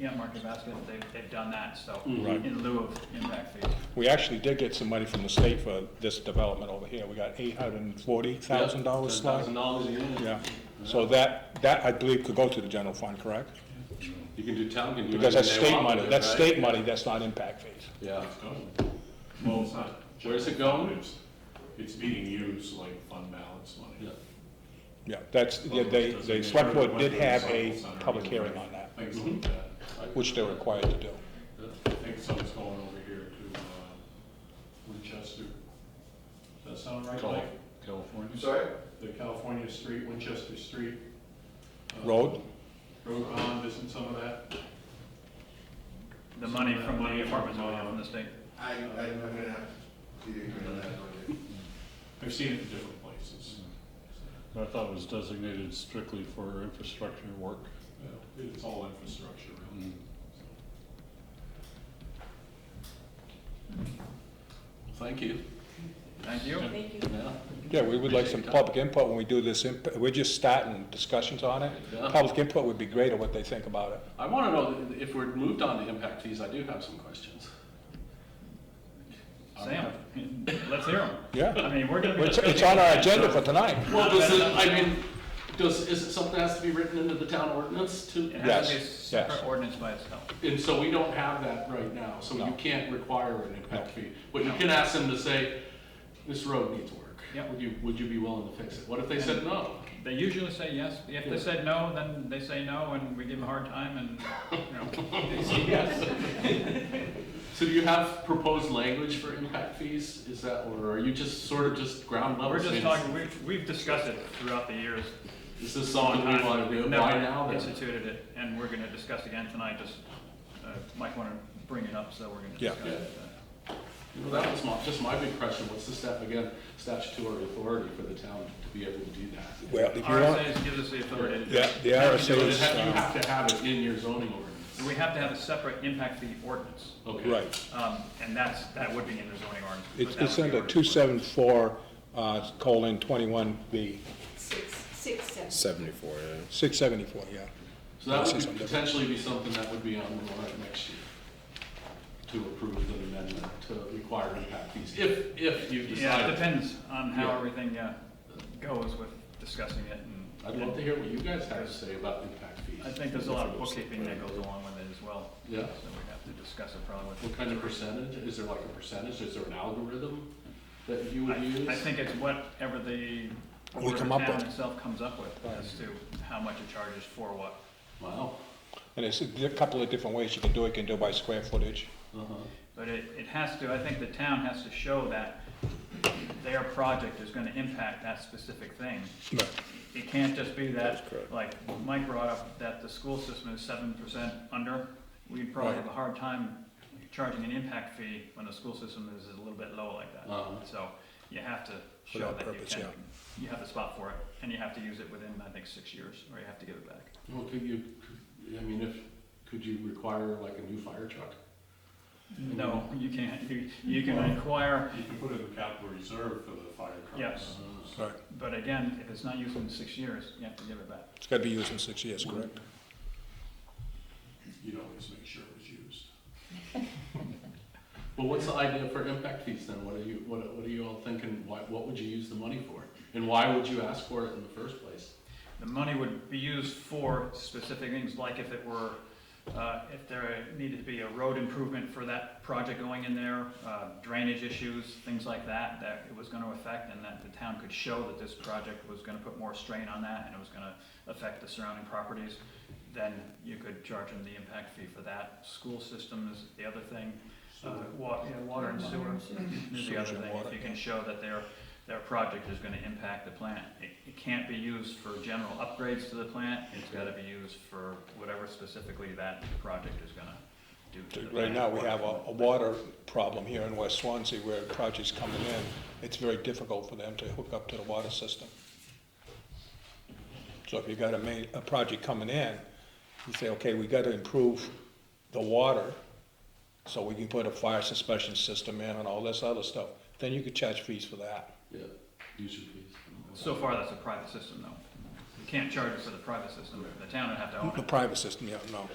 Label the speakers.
Speaker 1: yeah, Market Basket, they've, they've done that, so,
Speaker 2: Right.
Speaker 1: in lieu of impact fees.
Speaker 2: We actually did get some money from the state for this development over here. We got eight hundred and forty thousand dollars slot.
Speaker 3: Thousand dollars a year.
Speaker 2: Yeah, so that, that I believe could go to the general fund, correct?
Speaker 3: You can do town, can do.
Speaker 2: Because that's
Speaker 3: anything they
Speaker 2: state
Speaker 3: want
Speaker 2: money,
Speaker 3: with it,
Speaker 2: that's
Speaker 3: right?
Speaker 2: state money, that's not impact fees.
Speaker 3: Yeah,
Speaker 4: Well, it's not.
Speaker 3: Where's it going?
Speaker 4: It's- It's being used like fund balance
Speaker 3: yeah.
Speaker 4: money.
Speaker 2: Yeah, that's, yeah,
Speaker 3: Oh,
Speaker 2: they, the select board did have a public hearing on that,
Speaker 4: Things
Speaker 3: Mm-hmm.
Speaker 4: like that.
Speaker 2: which they're required to do.
Speaker 4: I think something's going over here to, uh, Winchester. Does that sound right, Mike?
Speaker 3: California.
Speaker 4: sorry? The California Street, Winchester Street. uh,
Speaker 2: Road?
Speaker 4: Road bond, isn't some of that?
Speaker 1: The money from the apartments we have from the state.
Speaker 5: I, I'm gonna have to agree on that one.
Speaker 4: I've seen it in different places.
Speaker 6: I thought it was designated strictly for infrastructure work.
Speaker 4: Yeah, It's all infrastructure, really.
Speaker 6: Mm-hmm.
Speaker 3: Thank you.
Speaker 1: Thank you.
Speaker 3: Thank you.
Speaker 2: Yeah, we would like some
Speaker 3: Appreciate that.
Speaker 2: public input when we do this, imp- we're just starting discussions on it.
Speaker 3: Yeah.
Speaker 2: Public input would be great on what they think about it.
Speaker 3: I want to know if we're moved on to impact fees, I do have some questions.
Speaker 1: Sam, let's hear them.
Speaker 2: Yeah,
Speaker 1: I mean, we're gonna be.
Speaker 2: it's, it's on our agenda for
Speaker 1: discussing
Speaker 2: tonight.
Speaker 3: Well, does it, I mean, does, is it something that has to be written into the town ordinance to?
Speaker 1: it, so It has to be a
Speaker 2: Yes, yes.
Speaker 1: separate ordinance by itself.
Speaker 3: And so we don't have that right now, so you
Speaker 2: No.
Speaker 3: can't require an impact fee. But you
Speaker 1: No.
Speaker 3: can ask them to say, this road needs work.
Speaker 1: Yep.
Speaker 3: Would you, would you be willing to fix it? What if they said no?
Speaker 1: They usually say yes. If they said no, then they say no, and we give them a hard time, and, you know,
Speaker 3: Yes. So do you have proposed language for impact fees? Is that, or are you just sort of just ground level?
Speaker 1: we're just
Speaker 3: saying,
Speaker 1: talking, we've, we've discussed it throughout the years.
Speaker 3: Is this something we want to do?
Speaker 1: We've
Speaker 3: Why
Speaker 1: never
Speaker 3: now then?
Speaker 1: Instituted it, and we're gonna discuss again tonight, just, uh, Mike wanted to bring it up, so we're gonna
Speaker 2: Yeah.
Speaker 1: discuss it.
Speaker 3: Well, that was my, just my big question. What's the step again, statutory authority for the town to be able to do that?
Speaker 2: Well, if you want,
Speaker 1: RSA's gives us the authority. to do
Speaker 2: yeah,
Speaker 1: it.
Speaker 2: the
Speaker 3: You
Speaker 2: RSA
Speaker 3: know,
Speaker 2: is,
Speaker 3: You
Speaker 2: um,
Speaker 3: have to have it in your zoning
Speaker 1: We
Speaker 3: ordinance.
Speaker 1: have to have a separate impact fee ordinance,
Speaker 3: Okay.
Speaker 2: right.
Speaker 1: um, and that's, that would be in the zoning ordinance. but
Speaker 2: It's,
Speaker 1: that
Speaker 2: it's
Speaker 1: would be
Speaker 2: under
Speaker 1: ordinance.
Speaker 2: two seven four, uh, colon twenty-one B,
Speaker 7: Six, six, seven.
Speaker 8: Seventy-four, yeah.
Speaker 2: six seventy-four, yeah.
Speaker 3: So that
Speaker 2: This
Speaker 3: would
Speaker 2: is
Speaker 3: be-
Speaker 2: under-
Speaker 3: potentially be something that would be on the warrant next year to approve an amendment to require impact fees, if, if you
Speaker 1: Yeah, it
Speaker 3: decide.
Speaker 1: depends on how
Speaker 3: Yeah.
Speaker 1: everything, uh, goes with discussing it and.
Speaker 3: I'd love to hear what you guys have to say about impact
Speaker 1: I
Speaker 3: fees.
Speaker 1: think there's a lot of bookkeeping that goes along with it as well.
Speaker 3: Yeah.
Speaker 1: So we have to discuss it probably with.
Speaker 3: What kind of percentage? Is there like a percentage? Is there an algorithm that you would use?
Speaker 1: I, I think it's whatever the.
Speaker 2: We
Speaker 1: whatever
Speaker 2: come up
Speaker 1: town
Speaker 2: with.
Speaker 1: Itself comes up with as to how much it charges for what.
Speaker 3: Wow.
Speaker 2: And it's a di- couple of different ways you can do it, you can do it by square footage.
Speaker 3: Uh-huh.
Speaker 1: But it, it has to, I think the town has to show that their project is gonna impact that specific thing.
Speaker 2: Right.
Speaker 1: It can't just be that,
Speaker 8: That's correct.
Speaker 1: like Mike brought up, that the school system is seven percent under. We'd probably
Speaker 2: Right.
Speaker 1: have a hard time charging an impact fee when the school system is a little bit low like that.
Speaker 3: Uh-huh.
Speaker 1: So you have to
Speaker 2: For
Speaker 1: show
Speaker 2: that
Speaker 1: that you
Speaker 2: purpose,
Speaker 1: can,
Speaker 2: yeah.
Speaker 1: you have a spot for it, and you have to use it within, I think, six years, or you have to give it back.
Speaker 3: Well, could you, could- I mean, if, could you require like a new fire truck?
Speaker 1: No, you can't, you, you can acquire,
Speaker 4: Mm-hmm. You can put it in the capital reserve for the fire trucks.
Speaker 1: Yes.
Speaker 3: Uh,
Speaker 2: Right.
Speaker 1: but again, if it's not used in six years, you have to give it back.
Speaker 2: It's gotta be used in six years, correct?
Speaker 4: You'd always make sure it was used.
Speaker 3: Well, what's the idea for impact fees then? What are you, what, what are you all thinking? Why, what would you use the money for? And why would you ask for it in the first place?
Speaker 1: The money would be used for specific things, like if it were, uh, if there needed to be a road improvement for that project going in there, uh, drainage issues, things like that, that it was gonna affect, and that the town could show that this project was gonna put more strain on that, and it was gonna affect the surrounding properties, then you could charge them the impact fee for that. School system is the other thing, uh, wa- yeah, water and sewer is the other
Speaker 2: Sewage and
Speaker 1: thing,
Speaker 2: water,
Speaker 1: if you
Speaker 2: yeah.
Speaker 1: can show that their, their project is gonna impact the plant. It, it can't be used for general upgrades to the plant, it's gotta be used for whatever specifically that project is gonna do to the
Speaker 2: Right
Speaker 1: plant.
Speaker 2: now, we have a, a water problem here in West Swansea where projects coming in, it's very difficult for them to hook up to the water system. So if you got a main, a project coming in, you say, okay, we gotta improve the water, so we can put a fire suspension system in and all this other stuff, then you could charge fees for that.
Speaker 3: Yeah, user fees.
Speaker 1: So far, that's a private system though. You can't charge it for the private system, the town would have to own
Speaker 2: The
Speaker 1: it.
Speaker 2: private system, yeah, no,